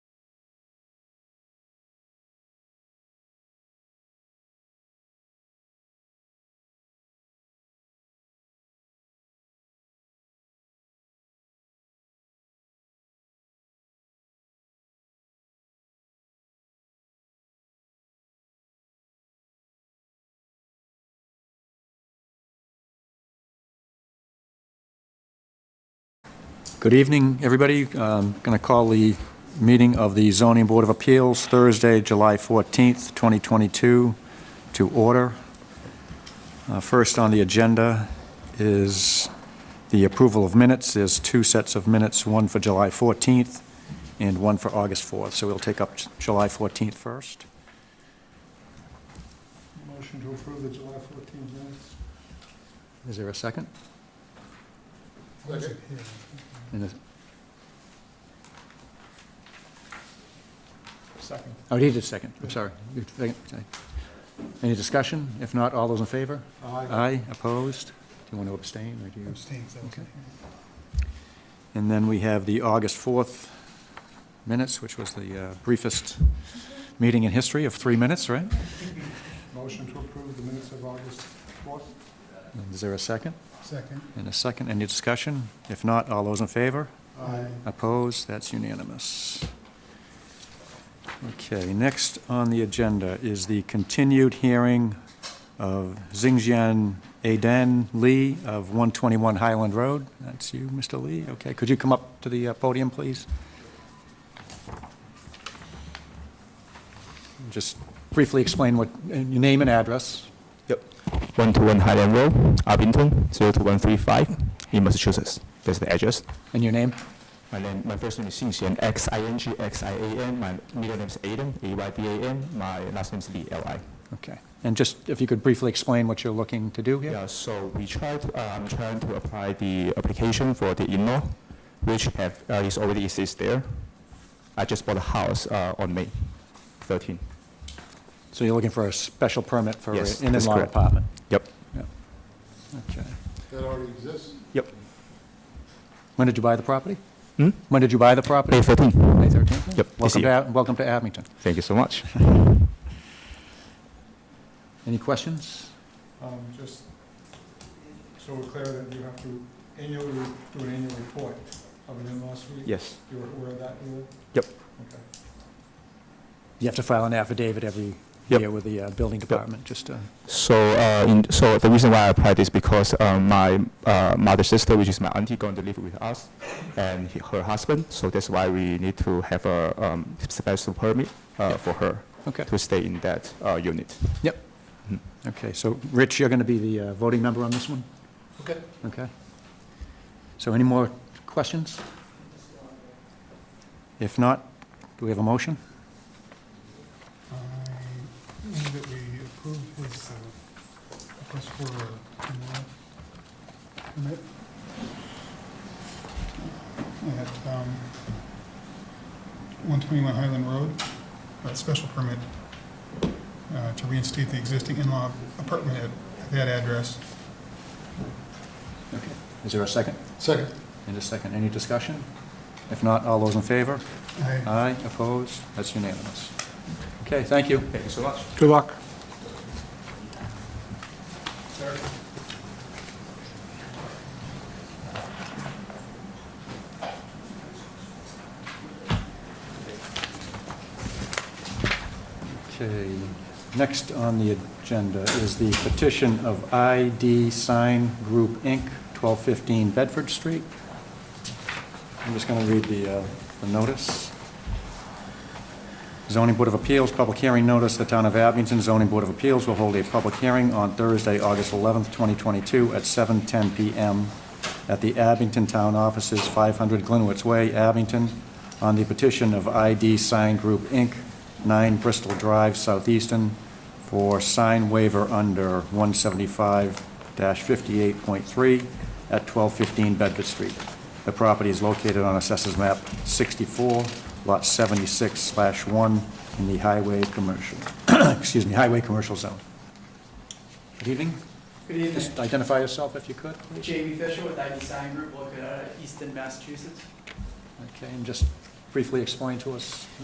Good evening, everybody. I'm going to call the meeting of the Zoning Board of Appeals Thursday, July 14th, 2022, to order. Uh, First on the agenda is the approval of minutes. There's two sets of minutes, one for July 14th and one for August 4th. So we'll take up July 14th first. Motion to approve the July 14th minutes. Is there a second? Second. And is- Second. Oh, he did second, I'm sorry. You second, okay. Any discussion? If not, all those in favor? Aye. Aye, opposed? Do you want to abstain, or do you? Abstained, so it's- Okay. And then we have the August 4th minutes, which was the uh, briefest meeting in history of three minutes, right? Motion to approve the minutes of August 4th. And Is there a second? Second. And a second, any discussion? If not, all those in favor? Aye. Opposed? That's unanimous. Okay, next on the agenda is the continued hearing of Xingjian Aden Lee of 121 Highland Road. That's you, Mr. Lee. Okay, could you come up to the uh, podium, please? Just briefly explain what, and your name and address. Yep. 121 Highland Road, Abington, 02135, in Massachusetts. That's the address. And your name? My name, my first name is Xing Xian, X-I-N-G-X-I-A-N. My middle name is Aiden, A-Y-D-A-N. My last name is Lee, L-I. Okay. And just, if you could briefly explain what you're looking to do here? Yeah, so we tried, uh, I'm trying to apply the application for the in-law, which have, uh, is already exists there. I just bought a house uh, on May 13. So you're looking for a special permit for Yes, an that's in-law correct. apartment? Yep. Yeah. Okay. That already exists? Yep. When did you buy the property? Hmm? When did you buy the property? May 13. May 13th? Yep, this Welcome to, year. Ab- welcome to Abington. Thank you so much. Any questions? Um, Just so we're clear that you have to annually, do an annual report of an in-law suite? Yes. You were aware of that, you were? Yep. Okay. You have to file an affidavit every Yep. year with the uh, building department, just to, So, uh, in, so the reason why I applied is because uh, my uh, mother's sister, which is my auntie, going to live with us, and he, her husband. So that's why we need to have a um, special permit uh, for her okay. to stay in that uh, unit. Okay, so Rich, you're going to be the uh, voting member on this one? Okay. Okay. So any more questions? If not, do we have a motion? I move that we approve his uh, request for a in-law permit. At um, 121 Highland Road, a special permit uh, to reinstate the existing in-law apartment at that address. Okay. Is there a second? Second. And a second. Any discussion? If not, all those in favor? I Aye, opposed? That's unanimous. Okay, thank you. Thank you so much. Good luck. Okay, next on the agenda is the petition of ID Sign Group, Inc., 1215 Bedford Street. I'm just going to read the uh, the notice. Zoning Board of Appeals, public hearing notice, the Town of Abington Zoning Board of Appeals will hold a public hearing on Thursday, August 11th, 2022, at 7:10 PM at the Abington Town Offices, 500 Glenwood's Way, Abington, on the petition of ID Sign Group, Inc., 9 Bristol Drive, Southeastern, for sign waiver under 175-58.3 at 1215 Bedford Street. The property is located on Assessors Map 64, Lot 76/1, slash 1, in the Highway Commercial, excuse me, Highway Commercial Zone. Good evening. Good evening. Just identify yourself if you could, please. Jamie Fisher with ID Sign uh, Group, located out of Easton, Massachusetts. Okay, and just briefly explain to us